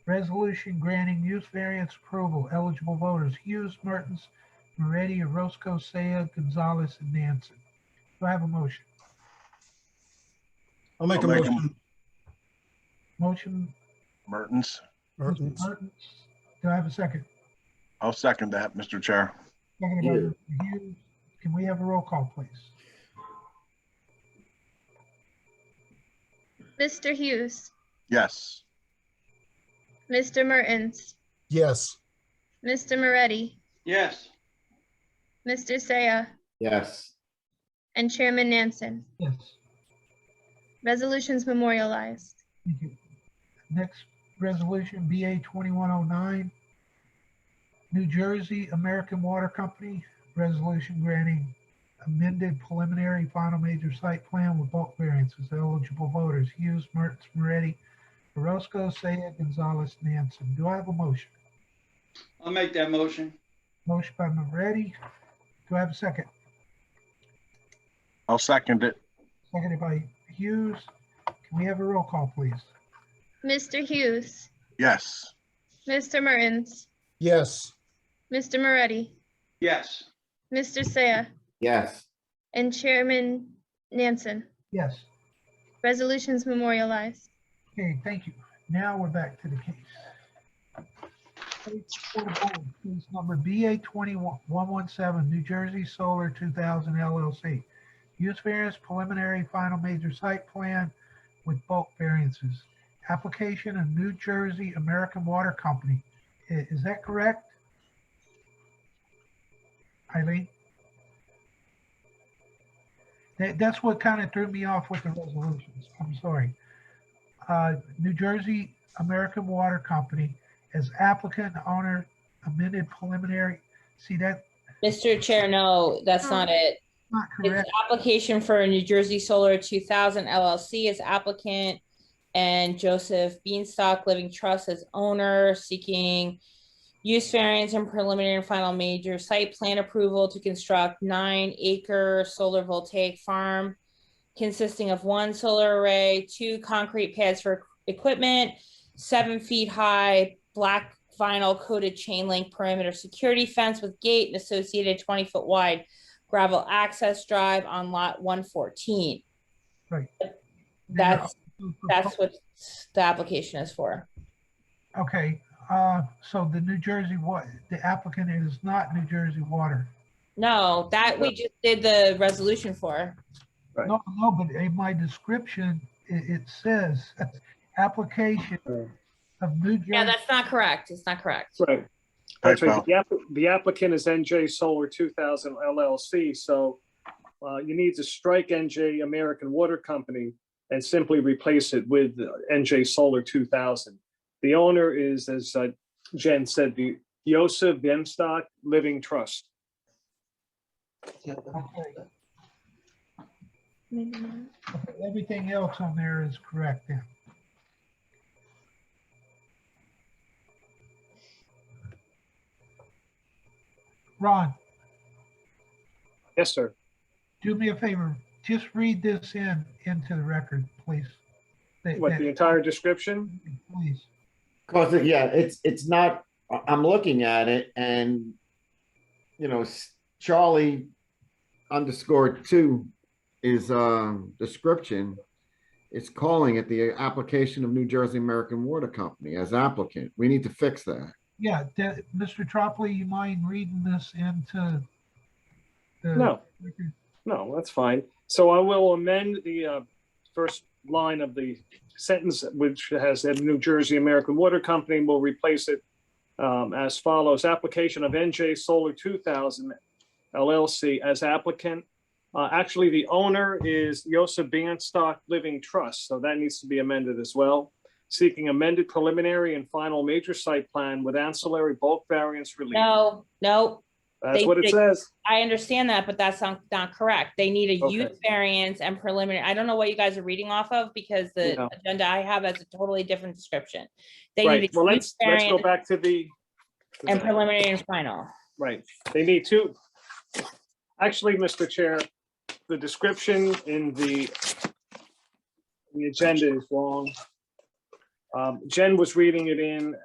Resolution granting use variance approval. Eligible voters Hughes, Mertens, Moretti, Orozco, Saya, Gonzalez, and Nansen. Do I have a motion? I'll make a I'll make a- motion. Motion, Mertens. Mr. Mertens. Mertens. Do I have a second? I'll second that, Mr. Chair. Second by Mr. Hughes. Can we have a roll call, please? Mr. Hughes, Yes. Mr. Mertens, Yes. Mr. Moretti, yes, Mr. Saya, yes, and Chairman Nansen. Yes, Resolutions memorialized. thank you. Mm-hmm. Next resolution, BA 2109. New Jersey American Water Company, resolution granting amended preliminary final major site plan with bulk variances. Eligible voters Hughes, Mertz, Moretti, Orozco, Saya, Gonzalez, Nansen. Do I have a motion? I'll make that motion. Motion by Moretti. Do I have a second? I'll second it. Seconded by Hughes. Can we have a roll call, please? Mr. Hughes, Yes. Mr. Mertens, Yes. Mr. Moretti, Yes, Mr. Saya, yes, and Chairman Nansen. Yes. Resolutions memorialized. Okay, thank you. Now we're back to the case. Case number BA 21117, New Jersey Solar 2000 LLC. Use variance preliminary final major site plan with bulk variances. Application of New Jersey American Water Company. I- Is that correct? Eileen? That, that's what kind of threw me off with the resolutions. I'm sorry uh, New Jersey American Water Company as applicant and owner amended preliminary. See, that's Mr. Chair, no, that's not it. not It's correct. application for New Jersey Solar 2000 LLC as applicant and Joseph Beanstalk Living Trust as owner seeking use variance and preliminary and final major site plan approval to construct nine acre solar voltaic farm consisting of one solar array, two concrete pads for equipment, seven feet high black vinyl coated chain link perimeter security fence with gate and associated 20 foot wide gravel access drive on lot one fourteen. Right. That's, that's what the application is for. Okay, uh, so the New Jersey, what, the applicant is not New Jersey Water. No, that we just did the resolution for. Right. No, no, but in my description, it, it says application of New Yeah, Jersey. that's not correct. It's not correct. Right. That's right. The app- The applicant is NJ Solar 2000 LLC, so uh, you need to strike NJ American Water Company and simply replace it with uh, NJ Solar 2000. The owner is, as uh, Jen said, the Yosef Benstock Living Trust. Okay, okay, Everything else on there is correct then. Ron? Yes, sir. do me a favor, just read this in, into the record, please. That- What, that- the entire description? Please, cause, it- yeah, it's, it's not, I- I'm looking at it and, you know, s- Charlie underscore two is, um, description. It's calling it the application of New Jersey American Water Company as applicant. We need to fix that. yeah, that- Mr. Tropoli, you mind reading this into? the No. record? No, that's fine. So I will amend the uh, first line of the sentence, which has that New Jersey American Water Company will replace it um, as follows, application of NJ Solar 2000 LLC as applicant. Uh, Actually, the owner is Yosa Bandstock Living Trust, so that needs to be amended as well. Seeking amended preliminary and final major site plan with ancillary bulk variance relief. No, no, That's they- what they- it says. I understand that, but that's not, not correct. They need a Okay. use variance and preliminary. I don't know what you guys are reading off of because the Yeah. agenda I have has a totally different description. They need Right, well, a use let's, let's go variance back to the. and preliminary and final. Right, they need to. Actually, Mr. Chair, the description in the the agenda is wrong. Um, Jen was reading it in